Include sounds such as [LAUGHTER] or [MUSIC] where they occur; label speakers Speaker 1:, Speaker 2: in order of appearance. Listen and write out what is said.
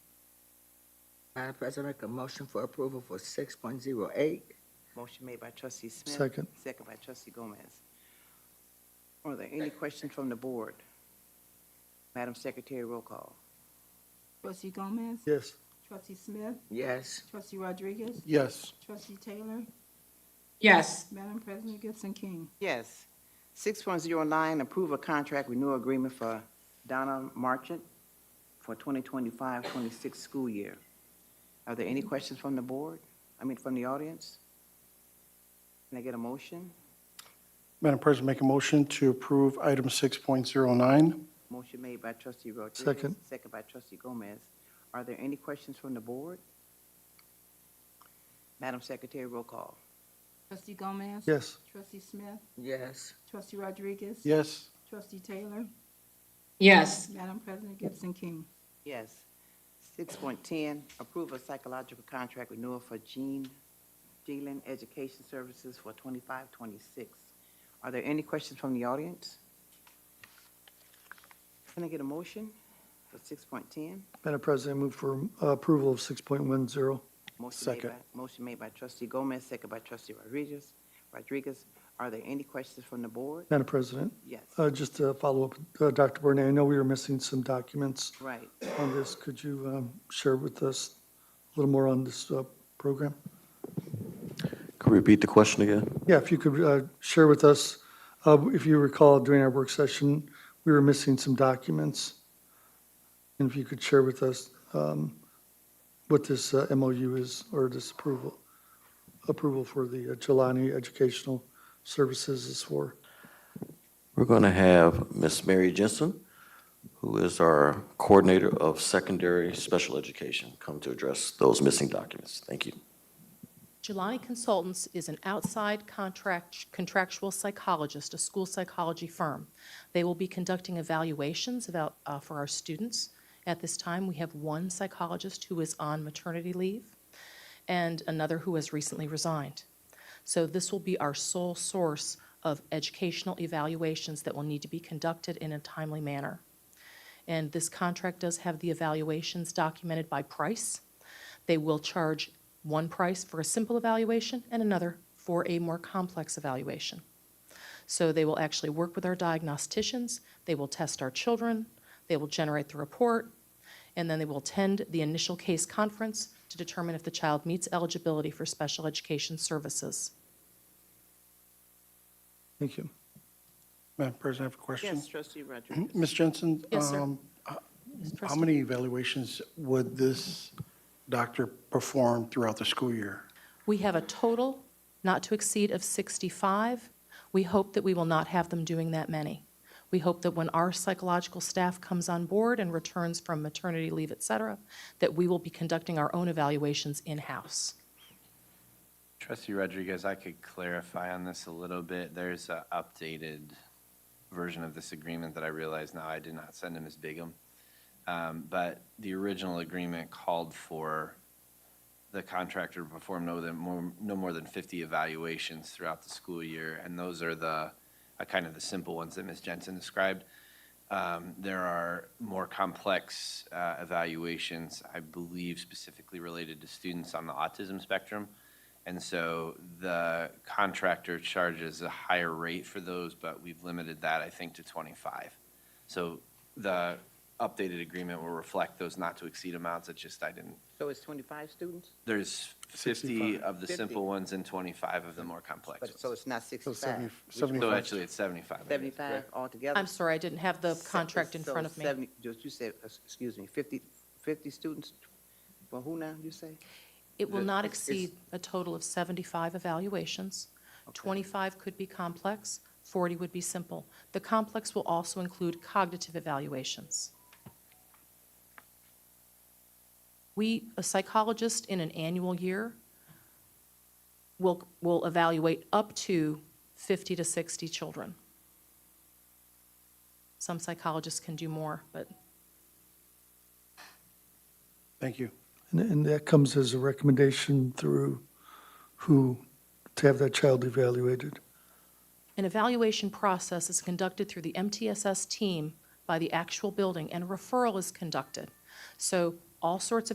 Speaker 1: Madam President, make a motion for approval for six point zero eight.
Speaker 2: Motion made by trustee Smith.
Speaker 3: Second.
Speaker 2: Second by trustee Gomez. Are there any questions from the board? Madam Secretary, roll call.
Speaker 4: Trustee Gomez?
Speaker 3: Yes.
Speaker 4: Trustee Smith?
Speaker 1: Yes.
Speaker 4: Trustee Rodriguez?
Speaker 3: Yes.
Speaker 4: Trustee Taylor?
Speaker 5: yes,
Speaker 4: Madam President Gibson King?
Speaker 2: Yes. Six point zero nine, approve a contract renewal agreement for Donna Marchant for 2025-26 school year. Are there any questions from the board? I mean, from the audience? Can I get a motion?
Speaker 3: Madam President, make a motion to approve item 6.09.
Speaker 2: Motion made by trustee Rodriguez.
Speaker 3: Second.
Speaker 2: Second by trustee Gomez. Are there any questions from the board? Madam Secretary, roll call.
Speaker 4: Trustee Gomez?
Speaker 3: Yes.
Speaker 4: Trustee Smith?
Speaker 1: Yes.
Speaker 4: Trustee Rodriguez?
Speaker 3: Yes.
Speaker 4: Trustee Taylor?
Speaker 5: yes,
Speaker 4: Madam President Gibson King?
Speaker 2: Yes. Six point ten, approve a psychological contract renewal for Jean Gillen Education Services for 25-26. Are there any questions from the audience? Can I get a motion for six point ten?
Speaker 6: Madam President, move for uh, approval of 6.10.
Speaker 3: Second.
Speaker 2: Motion made by trustee Gomez, second by trustee Rodriguez. Rodriguez, are there any questions from the board?
Speaker 6: Madam President,
Speaker 2: Yes,
Speaker 6: uh, just to follow up, uh, Dr. Burnett, I know we were missing some documents
Speaker 2: right.
Speaker 6: on this. Could you um, share with us a little more on this uh, program?
Speaker 7: Could we repeat the question again?
Speaker 6: Yeah, if you could uh, share with us, uh, if you recall during our work session, we were missing some documents. And if you could share with us um, what this uh, MOU is or this approval, approval for the uh, Jelani Educational Services is for.
Speaker 7: We're going to have Miss Mary Jensen, who is our coordinator of secondary special education, come to address those missing documents. Thank you.
Speaker 8: Jelani Consultants is an outside contract, contractual psychologist, a school psychology firm. They will be conducting evaluations about, uh, for our students. At this time, we have one psychologist who is on maternity leave and another who has recently resigned. So this will be our sole source of educational evaluations that will need to be conducted in a timely manner. And this contract does have the evaluations documented by price. They will charge one price for a simple evaluation and another for a more complex evaluation. So they will actually work with our diagnosticians, they will test our children, they will generate the report, and then they will attend the initial case conference to determine if the child meets eligibility for special education services.
Speaker 6: Thank you.
Speaker 3: Madam President, I have a question.
Speaker 2: Yes, trustee
Speaker 3: [CLEARS THROAT]
Speaker 2: Rodriguez.
Speaker 3: Ms. Jensen?
Speaker 8: Yes, sir.
Speaker 3: um,
Speaker 8: Ms.
Speaker 3: How
Speaker 8: Preston?
Speaker 3: many evaluations would this doctor perform throughout the school year?
Speaker 8: We have a total not to exceed of 65. We hope that we will not have them doing that many. We hope that when our psychological staff comes on board and returns from maternity leave, et cetera, that we will be conducting our own evaluations in-house.
Speaker 9: Trustee Rodriguez, I could clarify on this a little bit. There's an updated version of this agreement that I realize now I did not send to Ms. Bigum. Um, But the original agreement called for the contractor to perform no than- more- no more than 50 evaluations throughout the school year, and those are the, uh, kind of the simple ones that Ms. Jensen described. Um, There are more complex uh, evaluations, I believe specifically related to students on the autism spectrum. And so the contractor charges a higher rate for those, but we've limited that, I think, to 25. So the updated agreement will reflect those not to exceed amounts, it's just I didn't,
Speaker 2: So it's twenty-five students?
Speaker 9: there's 50
Speaker 3: 65.
Speaker 9: of the
Speaker 2: 50.
Speaker 9: simple ones and 25 of the more complex
Speaker 2: But, so
Speaker 9: ones.
Speaker 2: it's not
Speaker 3: So
Speaker 2: sixty-five?
Speaker 3: 70
Speaker 9: So
Speaker 3: 75?
Speaker 9: actually, it's 75. I guess.
Speaker 2: Seventy-five altogether?
Speaker 8: I'm sorry, I didn't have the contract in
Speaker 2: So
Speaker 8: front of me.
Speaker 2: 70 Just, you said, uh, excuse me, 50, 50 students, well, who now, you say?
Speaker 8: It will not
Speaker 2: It's- it's-
Speaker 8: exceed a total of 75 evaluations. 25 could be complex, 40 would be simple. The complex will also include cognitive evaluations. We, a psychologist in an annual year will, will evaluate up to 50 to 60 children. Some psychologists can do more, but
Speaker 3: Thank you.
Speaker 6: And, and that comes as a recommendation through who to have that child evaluated.
Speaker 8: An evaluation process is conducted through the MTSS team by the actual building, and referral is conducted. So all sorts of